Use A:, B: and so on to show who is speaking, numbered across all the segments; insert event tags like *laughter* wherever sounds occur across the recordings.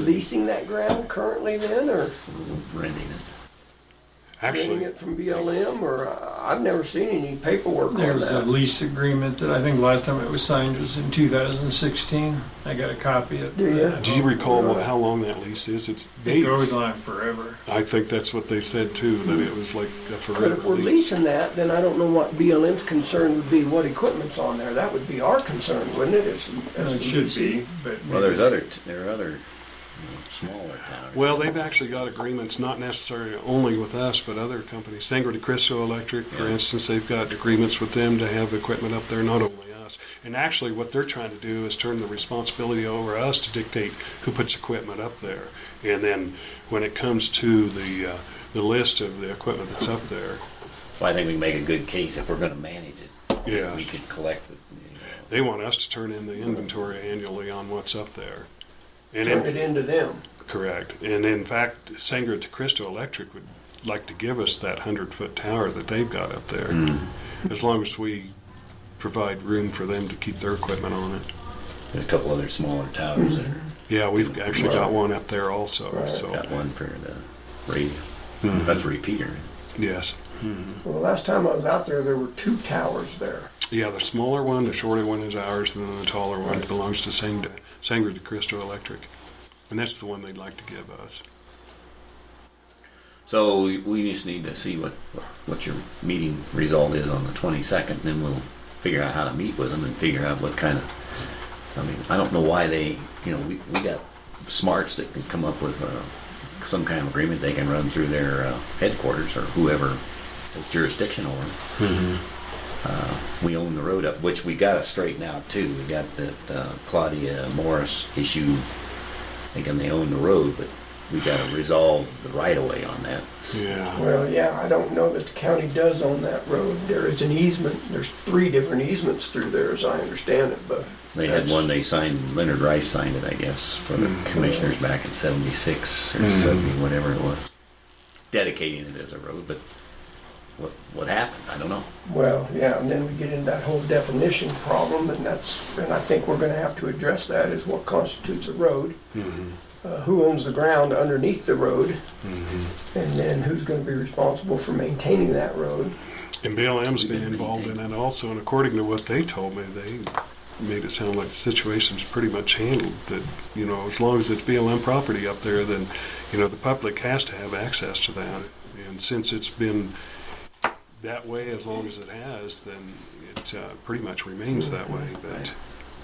A: leasing that ground currently then, or
B: renting it.
A: getting
C: Actually,
A: it from BLM, or, uh, I've never seen any paperwork
D: There
A: on
D: was a
A: that.
D: lease agreement that I think last time it was signed was in 2016. I got a copy of it.
A: Do ya?
D: I
C: do you
D: don't-
C: recall what, how long that lease is? It's
D: It
C: eight.
D: goes on forever.
C: I think that's what they said too, that it was like a
A: But
C: forever
A: if we're
C: lease.
A: leasing that, then I don't know what BLM's concern would be, what equipment's on there. That would be our concern, wouldn't it? as-
D: And
A: as
D: it should
A: leasing?
D: be, but.
B: Well, there's other, t- there are other, you know, smaller towers.
C: Well, they've actually got agreements, not necessarily only with us, but other companies. Sangre de Cristo Electric, for
B: Yeah.
C: instance, they've got agreements with them to have equipment up there, not only us. And actually, what they're trying to do is turn the responsibility over us to dictate who puts equipment up there. And then when it comes to the, uh, the list of the equipment that's up there,
B: So I think we can make a good case if we're gonna manage it.
C: yeah,
B: We could collect it, you
C: they want us to turn in the inventory annually on what's up there. And
A: Turn it
C: in-
A: into them.
C: Correct. And in fact, Sangre de Cristo Electric would like to give us that 100 foot tower that they've got up there,
B: know.
C: as long as we provide room for them to keep their equipment on it.
B: There's a couple other smaller towers that are,
C: Yeah, we've actually got one up there also.
A: Right.
C: So,
B: got one for the radio.
C: Mhm.
B: That's a repeater.
C: yes.
A: Well, last time I was out there, there were two towers there.
C: Yeah, the smaller one, the shorter one is ours, and then the taller one belongs to Sangre, Sangre de Cristo Electric. And that's the one they'd like to give us.
B: So we- we just need to see what, what your meeting result is on the twenty-second, then we'll figure out how to meet with them and figure out what kind of, I mean, I don't know why they, you know, we, we got smarts that can come up with, uh, some kind of agreement they can run through their uh, headquarters or whoever has jurisdiction over them. Uh, we own the road up, which we gotta straighten out too. We got that uh, Claudia Morris issue, thinking they own the road, but we gotta resolve the right-of-way on that.
C: Yeah.
A: Well, yeah, I don't know that the county does own that road. There is an easement, there's three different easements through there, as I understand it, but.
B: They had
A: that's-
B: one they signed, Leonard Rice signed it, I guess, for the
A: Mm.
B: commissioners back in seventy-six or seventy, whatever it was. Dedicating it as a road, but what, what happened? I don't know.
A: Well, yeah, and then we get into that whole definition problem, and that's, and I think we're gonna have to address that, is what constitutes a road?
C: Mm-hmm.
A: Uh, Who owns the ground underneath the road?
C: Mm-hmm.
A: And then who's gonna be responsible for maintaining that road?
C: And BLM's been involved in it also, and according to what they told me, they made it sound like the situation's pretty much handled. That, you know, as long as it's BLM property up there, then, you know, the public has to have access to that. And since it's been that way as long as it has, then it uh, pretty much remains that way. But,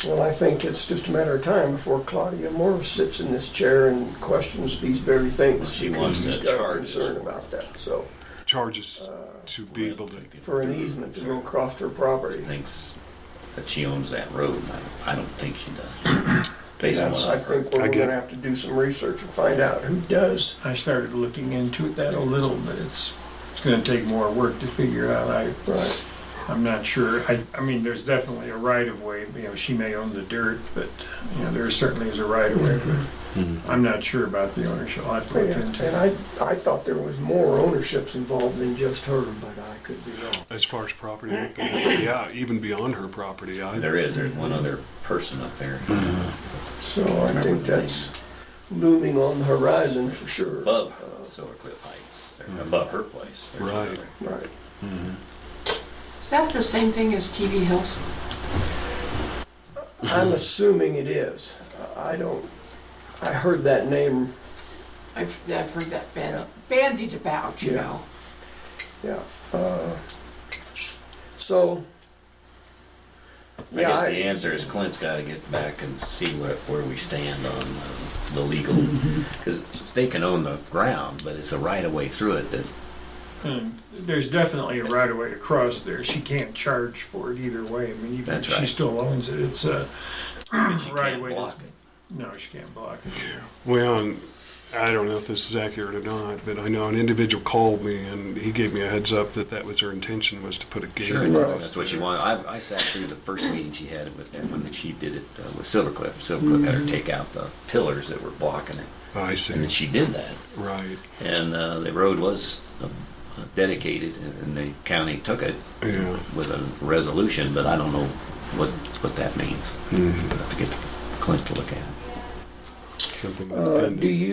A: Well, I think it's just a matter of time before Claudia Morris sits in this chair and questions these very things.
B: She
A: because
B: wants to
A: she's got a
B: charge us
A: Concern
B: for it.
A: about that, so,
C: charges to be able to,
A: for an easement to go across her property.
B: Thinks that she owns that road, and I, I don't think she does.
A: *clears throat*
B: Based on
A: That's,
B: what
A: I
B: I've heard.
A: think, where
C: I
A: we're
C: get-
A: gonna have to do some research and find out who does.
D: I started looking into that a little, but it's, it's gonna take more work to figure out. I,
A: Right.
D: I'm not sure. I, I mean, there's definitely a right of way, you know, she may own the dirt, but, you know, there certainly is a right of way,
B: Mm-hmm.
D: but I'm not sure about the ownership. I'll have to look
A: And
D: into
A: and
D: it.
A: I, I thought there was more ownerships involved than just her, but I could be wrong.
C: as far as property, yeah, even beyond her property. I,
B: There is, there's one other person up there.
A: So I think Mm. that's looming on the horizon for sure.
B: above Silver Cliff Heights, They're above her place. They're
C: Right.
B: over.
A: Mm. Right.
E: Is that the same thing as TV Hills?
A: I'm assuming it is. I don't, I heard that name,
E: I've, I've heard that band, bandied about, you
A: Yeah.
E: know.
A: yeah. Uh, So,
B: I
A: yeah,
B: guess the
A: I-
B: answer is Clint's gotta get back and see where, where we stand on uh, the legal, because they can own the ground, but it's a right of way through it that,
D: And There's definitely a right of way across there. She can't charge for it either way. I mean, even if
B: That's right.
D: she still owns it, it's
B: *clears throat*
D: a right
B: can't
D: of way. that's-
B: block it.
D: No, she can't block it.
C: Well, and I don't know if this is accurate or not, but I know an individual called me and he gave me a heads up that that was her intention was to put a gate.
B: Sure,
A: Right.
B: that's what you want. I, I sat through the first meeting she had with, and when she did it uh, with Silver Cliff. Silver Cliff had her take out the pillars that were blocking it,
C: I see.
B: and she did that.
C: Right.
B: And uh, the road was uh, dedicated, and the county took it
C: Yeah.
B: with a resolution, but I don't know what, what that means. I'll have to get Clint to look at it.
C: something
A: Uh,
C: independent.
A: Do you